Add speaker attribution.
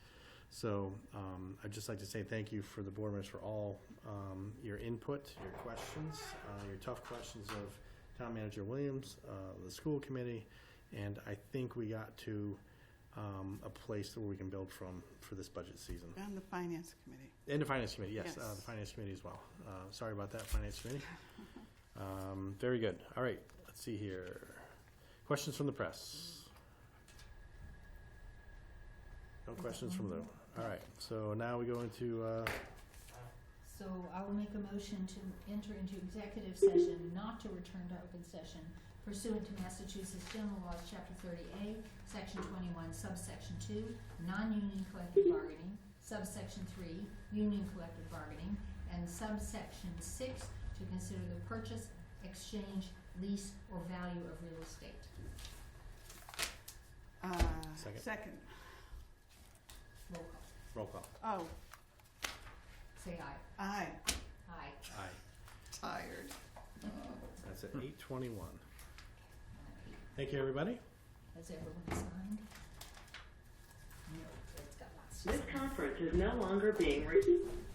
Speaker 1: So um, I'd just like to say thank you for the board members for all um, your input, your questions, uh, your tough questions of town manager Williams, uh, the school committee, and I think we got to um, a place where we can build from for this budget season.
Speaker 2: On the finance committee.
Speaker 1: And the finance committee, yes, uh,
Speaker 2: Yes.
Speaker 1: the finance committee as well. Uh, Sorry about that, finance committee. Um, Very good. All right, let's see here. Questions from the press? No questions from the, all right, so now we go into, uh,
Speaker 3: So I will make a motion to enter into executive session, not to return to open session pursuant to Massachusetts General Laws, Chapter thirty A, Section twenty-one, subsection two, non-union collective bargaining, subsection three, union collective bargaining, and subsection six, to consider the purchase, exchange, lease, or value of real estate.
Speaker 2: Uh,
Speaker 1: Second.
Speaker 2: Second.
Speaker 3: Roll call.
Speaker 1: roll call.
Speaker 2: Oh,
Speaker 3: Say aye.
Speaker 2: aye.
Speaker 3: Aye.
Speaker 1: Aye.
Speaker 2: Tired.
Speaker 1: That's at eight twenty-one.
Speaker 3: Aye.
Speaker 1: Thank you, everybody.
Speaker 3: Has everyone signed? No, it's got lots to
Speaker 4: This conference is no longer being recorded.